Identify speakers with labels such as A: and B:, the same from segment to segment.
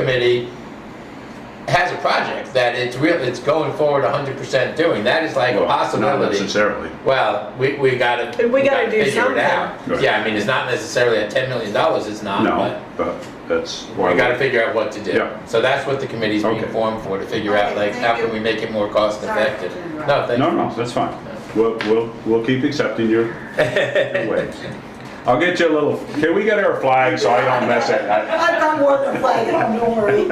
A: committee has a project that it's real, it's going forward hundred percent doing, that is like a
B: Well, Not
A: possibility.
B: necessarily.
A: Well, we, we gotta.
C: We gotta do
A: figure it
C: something.
A: out.
B: Right.
A: Yeah, I mean, it's not necessarily at ten million dollars, it's not,
B: No,
A: but
B: but that's why.
A: we gotta
B: we-
A: figure out what to do.
B: Yeah.
A: So that's what the committee's being
B: Okay.
A: formed for, to figure out
D: Okay,
A: like, how
D: thank
A: can
D: you.
A: we make it more cost
D: Sorry to
A: effective?
D: interrupt.
A: No, thank
B: No,
A: you.
B: no, that's fine. We'll, we'll, we'll keep accepting your your waves. I'll get you a little, can we get our flag so I don't mess it up?
D: I've got more than a flag at home, don't worry.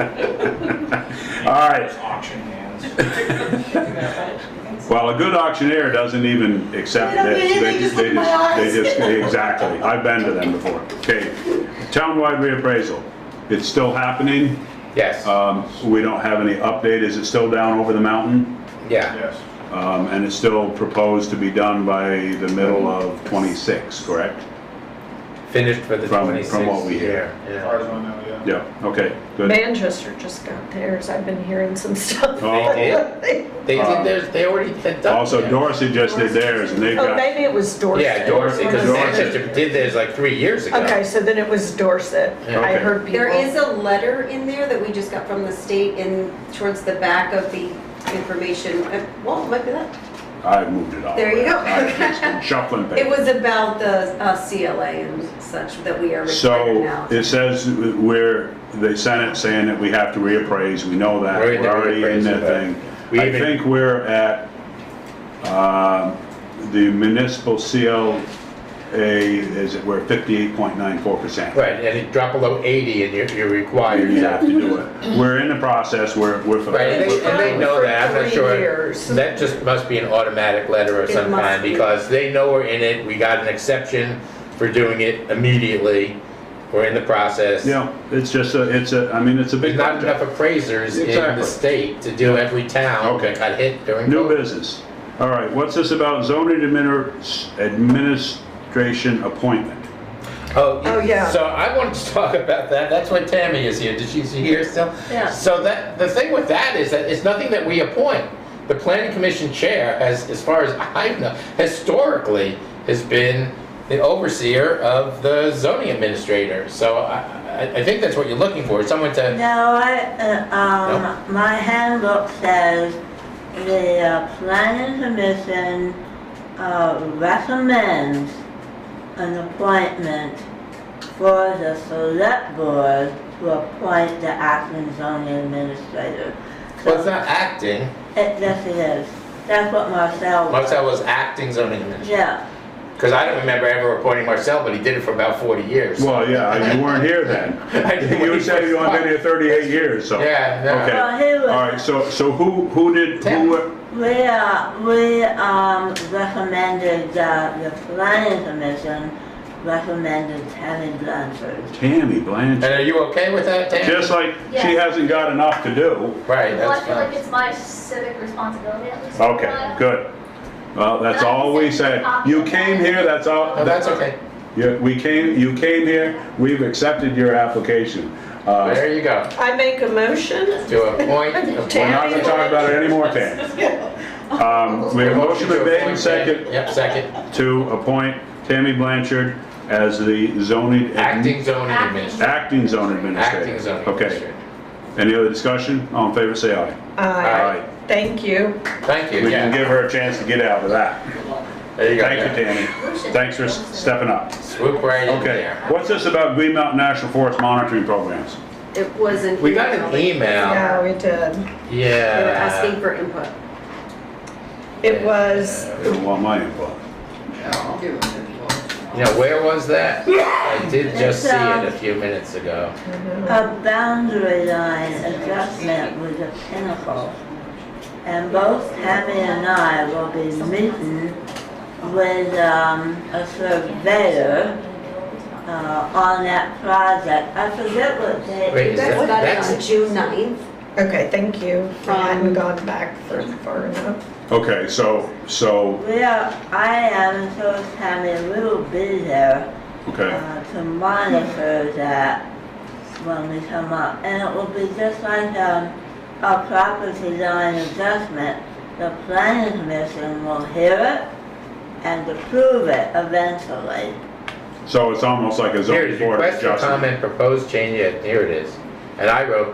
B: All right.
E: Auction hands.
B: Well, a good auctioneer doesn't even accept
D: They don't
B: this.
D: do anything, just look in my eyes.
B: They just, exactly. I've been to them before. Okay, townwide reappraisal. It's still happening.
A: Yes,
B: Um, we don't have any update. Is it still down over the mountain?
A: yeah,
E: Yes.
B: Um, and it's still proposed to be done by the middle of '26, correct?
A: finished for the
B: From- from
A: twenty-sixth.
B: what we hear.
E: As far as I know, yeah.
B: Yeah, okay, good.
C: Manchester just got theirs. I've been hearing some stuff.
B: Oh.
A: They did? They
B: Um,
A: did, theirs- they already had done.
B: Also,
A: theirs.
B: Dorsey just did theirs, and they've
C: Oh,
B: got,
C: maybe it was Dorset.
A: Yeah, Dorsey, because
B: Dorsey.
A: Manchester did theirs like three years ago.
C: Okay, so then it was Dorset.
A: Yeah.
C: I
B: Okay.
C: heard people.
F: There is a letter in there that we just got from the state in, towards the back of the information. Uh, Well, it might be that.
B: I moved it off.
F: There you go.
B: I've just been Shuffling
F: It
B: papers.
F: was about the uh, CLA and such that we are required
B: So
F: now.
B: it says where, they sent it saying that we have to reappraise, we know that,
A: We're in
B: we're
A: the
B: already in that
A: reappraisal, but
B: thing.
A: we
B: I
A: even-
B: think we're at, um, the municipal CLA, is it, we're 58.94%.
A: Right, and you drop below 80 and you're, you're required.
B: You have to do it. We're in the process, we're, we're.
A: Right, and they, and they know that, I'm not
C: Three
A: sure.
C: years.
A: That just must be an automatic letter of
F: It
A: some
F: must
A: kind,
F: be.
A: because they know we're in it, we got an exception for doing it immediately. We're in the process.
B: Yeah, it's just a, it's a, I mean, it's a
A: There's
B: big
A: not enough
B: project.
A: appraisers in the
B: Exactly.
A: state to do every town
B: Okay.
A: that got hit during
B: New
A: COVID.
B: business. All right, what's this about zoning admini- administration appointment?
C: Oh, yeah.
A: So I wanted to talk about that, that's why Tammy is here, did she, is she here still?
F: Yeah.
A: So that, the thing with that is that it's nothing that we appoint. The planning commission chair has, as far as I know, historically has been the overseer of the zoning administrator. So I, I, I think that's what you're looking for, someone to,
D: No, I, uh, um, my handbook says the uh, planning commission, uh, recommends an appointment for the select board to appoint the acting zoning administrator.
A: well, it's not acting,
D: It, yes, it is. That's what Marcel.
A: Marcel was acting zoning administrator.
D: Yeah.
A: Because I don't remember ever appointing Marcel, but he did it for about 40 years.
B: Well, yeah, you weren't here
A: I didn't
B: then.
A: when
B: You
A: he
B: said you
A: first
B: only been here 38 years, so.
A: Yeah, yeah.
B: Okay.
D: Well, he
B: All
D: was-
B: right, so, so who, who did,
A: Tim.
B: who, were-
D: We, uh, we, um, recommended, uh, the planning commission recommended Tammy Blanchard.
B: Tammy
A: And
B: Blanchard.
A: are you okay with that, Tammy?
B: Just like, she
G: Yes.
B: hasn't got enough to do.
A: Right,
G: Well, I
A: that's
G: feel
A: fine.
G: like it's my civic responsibility at least. for a
B: Okay,
G: while.
B: good. Well, that's all we said. You came here, that's all.
A: No, Oh, that's okay.
B: Yeah, we came, you came here, we've accepted your application. Uh,
A: There you go.
C: I make a motion.
A: To appoint,
B: We're
A: appoint.
B: not gonna talk about it anymore, Tam. Um, we have a motion been made and second
A: Yep, second.
B: to appoint Tammy Blanchard as the zoning. admin-
A: Acting zoning
G: Acting.
A: administrator.
B: Acting zone administrator.
A: Acting zoning
B: Mm-hmm. Okay,
A: administrator.
B: any other discussion? All in favor, say aye.
C: Aye.
B: Aye.
C: Thank you.
A: Thank you,
B: We can
A: yeah.
B: give her a chance to get out of that.
A: There you go.
B: Thank you,
A: yeah.
B: Tammy. Thanks for stepping up.
A: Swoop right in
B: Okay,
A: there.
B: what's this about Green Mountain National Forest monitoring programs?
F: It was an.
A: We got an email. uh,
C: Yeah, we did.
F: They were asking
A: Yeah.
F: for input.
C: It was,
B: They don't want my input.
A: You know, where was that? I did just see
D: It's, uh,
A: it a few minutes ago.
D: A boundary line adjustment with a pinnacle. And both Tammy and I will be meeting with, um, a surveyor, uh, on that project. I forget what day.
A: Wait, is
F: You guys
A: that,
F: got it on
A: that's,
F: June 9th.
C: okay, thank you. I hadn't
F: Um,
C: gone back for far enough.
B: Okay, so, so,
D: We are, I am so Tammy, we will be there.
B: okay,
D: uh, to monitor that when we come up. And it will be just like um, a property line adjustment. The planning commission will hear it and approve it eventually.
B: so it's almost like
A: here
B: a
A: it
B: zoning
A: is,
B: board
A: request
B: adjustment.
A: for comment, proposed change, yeah, here it is. And I wrote